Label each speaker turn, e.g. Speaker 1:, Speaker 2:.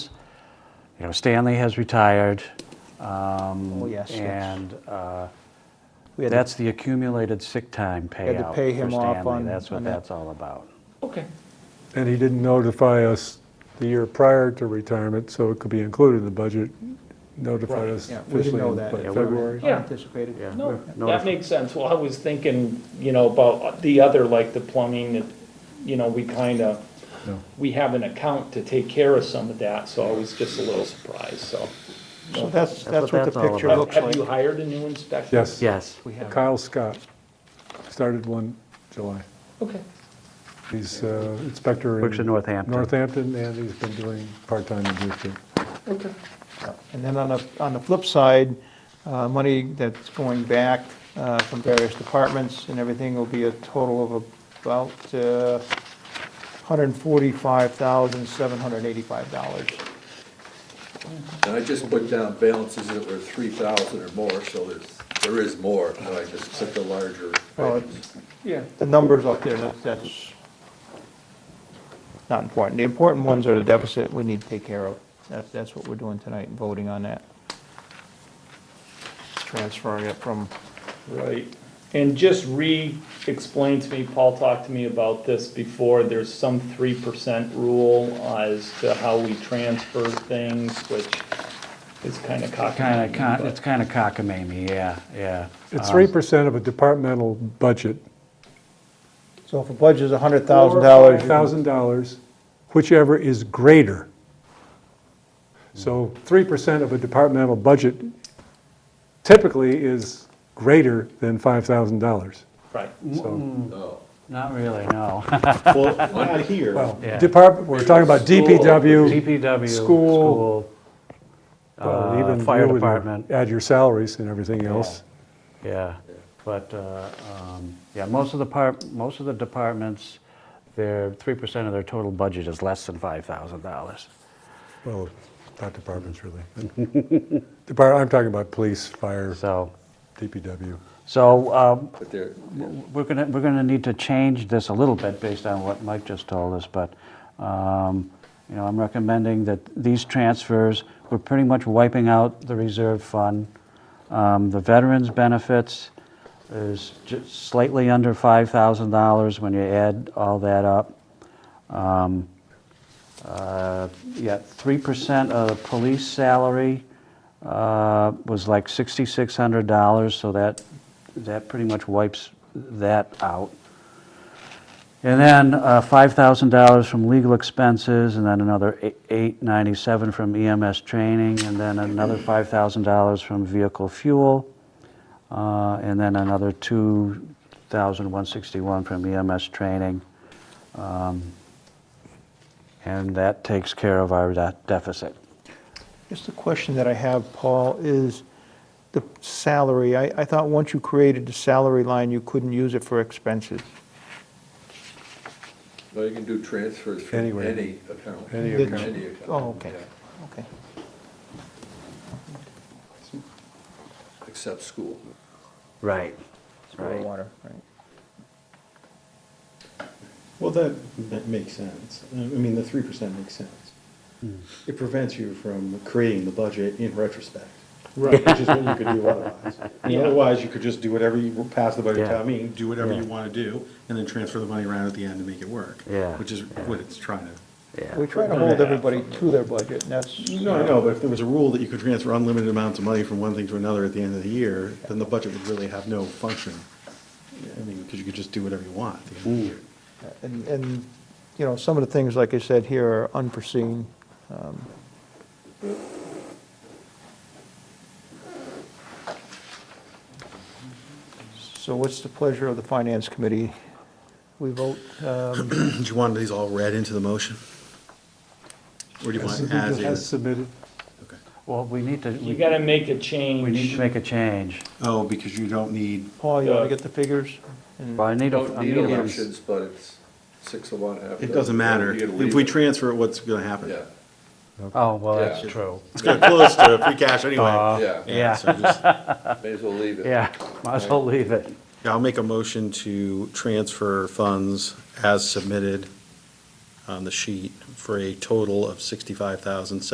Speaker 1: you know, Stanley has retired. Oh,
Speaker 2: yes, yes.
Speaker 1: And uh,
Speaker 2: We had to-
Speaker 1: that's the accumulated sick time
Speaker 2: had to
Speaker 1: payout
Speaker 2: pay
Speaker 1: for
Speaker 2: him off
Speaker 1: Stanley.
Speaker 2: on-
Speaker 1: That's what
Speaker 2: on that.
Speaker 1: that's all about.
Speaker 3: Okay.
Speaker 4: And he didn't notify us the year prior to retirement, so it could be included in the budget. Notified us
Speaker 2: Yeah, we didn't
Speaker 4: officially
Speaker 2: know
Speaker 4: in
Speaker 2: that.
Speaker 4: like
Speaker 1: we-
Speaker 4: February.
Speaker 3: Yeah.
Speaker 2: Anticipated.
Speaker 1: Yeah.
Speaker 3: No,
Speaker 1: No,
Speaker 3: that
Speaker 1: if-
Speaker 3: makes sense. Well, I was thinking, you know, about the other, like the plumbing, that, you know, we kind of,
Speaker 4: No.
Speaker 3: we have an account to take care of some of that, so I was just a little surprised, so.
Speaker 2: So that's,
Speaker 1: That's
Speaker 2: that's
Speaker 1: what
Speaker 2: what
Speaker 1: that's
Speaker 2: the
Speaker 1: all
Speaker 2: picture
Speaker 1: about.
Speaker 3: Have
Speaker 2: looks
Speaker 3: have you
Speaker 2: like.
Speaker 3: hired a new inspector?
Speaker 4: Yes.
Speaker 1: Yes.
Speaker 2: We have
Speaker 4: Kyle Scott started one July.
Speaker 3: Okay,
Speaker 4: He's uh, inspector in.
Speaker 1: Works in Northampton.
Speaker 4: Northampton, and he's been doing part-time in Houston.
Speaker 3: okay.
Speaker 2: Yeah. And then on the, on the flip side, uh, money that's going back uh, from various departments and everything will be a total of about uh, $145,785.
Speaker 5: And I just put down balances that were three thousand or more, so there's, there is more, and I just took the larger
Speaker 2: Well, it-
Speaker 5: items.
Speaker 3: Yeah.
Speaker 2: The numbers up there, that's- that's not important. The important ones are the deficit we need to take care of. That's, that's what we're doing tonight, voting on that. Transferring it from,
Speaker 3: Right, and just re-explain to me, Paul talked to me about this before, there's some three percent rule as to how we transfer things, which is kind of cocky.
Speaker 1: Kind of, it's kind of cockamamie, yeah, yeah.
Speaker 4: It's
Speaker 1: Um,
Speaker 4: three percent of a departmental budget,
Speaker 2: so if a budget is $100,000, you-
Speaker 4: thousand dollars, whichever is greater. So three percent of a departmental budget typically is greater than five thousand dollars.
Speaker 3: Right,
Speaker 4: So,
Speaker 5: No.
Speaker 1: Not really, no.
Speaker 6: Well, not here.
Speaker 4: well,
Speaker 1: Yeah.
Speaker 4: department, we're talking about DPW,
Speaker 1: DPW,
Speaker 4: School,
Speaker 1: school,
Speaker 4: well,
Speaker 1: uh,
Speaker 4: even you
Speaker 1: fire
Speaker 4: would
Speaker 1: department.
Speaker 4: Add your salaries and everything else.
Speaker 1: Yeah, but, uh, um, yeah, most of the part, most of the departments, their, 3% of their total budget is less than $5,000.
Speaker 4: Well, not departments really. Depart, I'm talking about police, fire,
Speaker 1: So,
Speaker 4: DPW.
Speaker 1: so um,
Speaker 5: But there,
Speaker 1: we're going to, we're going to need to change this a little bit based on what Mike just told us, but, um, you know, I'm recommending that these transfers, we're pretty much wiping out the reserve fund. Um, The veterans' benefits is ju- slightly under $5,000 when you add all that up. Um, uh, Yeah, 3% of the police salary uh, was like $6,600, so that, that pretty much wipes that out. And then uh, $5,000 from legal expenses, and then another eight- 897 from EMS training, and then another $5,000 from vehicle fuel, uh, and then another 2,161 from EMS training. Um, And that takes care of our de- deficit.
Speaker 2: Just a question that I have, Paul, is the salary. I, I thought once you created the salary line, you couldn't use it for expenses.
Speaker 5: no, you can do transfers from
Speaker 4: Anywhere.
Speaker 5: any account.
Speaker 4: Any
Speaker 5: From
Speaker 2: account.
Speaker 5: Any account.
Speaker 2: Oh, okay,
Speaker 5: yeah,
Speaker 2: okay.
Speaker 5: Except school.
Speaker 1: Right.
Speaker 5: uh,
Speaker 2: Sewer water, right.
Speaker 6: Well, that, that makes sense. I mean, the three percent makes sense.
Speaker 1: Hmm.
Speaker 6: It prevents you from creating the budget in retrospect. Right. Which is what you could do otherwise. And
Speaker 3: Yeah.
Speaker 6: Otherwise, you could just do whatever you, pass the budget
Speaker 1: Yeah.
Speaker 6: town meeting, do whatever
Speaker 1: Yeah.
Speaker 6: you want to do, and then transfer the money around at the end to make it work.
Speaker 1: Yeah.
Speaker 6: Which is what it's trying to.
Speaker 2: We try to hold everybody to their budget, and that's,
Speaker 6: No, I know, but if there was a rule that you could transfer unlimited amounts of money from one thing to another at the end of the year, then the budget would really have no function. I mean, because you could just do whatever you want at the end of the year.
Speaker 2: and, and, you know, some of the things, like I said here, are unforeseen. um, So what's the pleasure of the finance committee? We vote, um,
Speaker 6: Do you want these all read into the motion? Or do you want
Speaker 4: As
Speaker 6: as is?
Speaker 4: submitted.
Speaker 6: Okay.
Speaker 1: Well, we need to,
Speaker 3: you
Speaker 1: we
Speaker 3: gotta make a
Speaker 1: we need
Speaker 3: change.
Speaker 1: to make a change.
Speaker 6: Oh, because you don't need,
Speaker 2: Paul, you want to get the figures? And-
Speaker 1: Well, I need
Speaker 5: Mm. Don't
Speaker 1: a, I
Speaker 5: need
Speaker 1: need a.
Speaker 5: elections, but it's six of one, half.
Speaker 6: it doesn't matter. If we transfer it, what's gonna happen?
Speaker 5: Yeah,
Speaker 1: Oh, well,
Speaker 5: Yeah.
Speaker 1: that's true.
Speaker 6: It's gonna close to free cash anyway.
Speaker 5: yeah,
Speaker 1: yeah.
Speaker 6: so just- Yeah,
Speaker 5: may as well leave it.
Speaker 1: Yeah, might as well leave it.
Speaker 6: I'll make a motion to transfer funds as submitted on the sheet for a total of sixty-five thousand,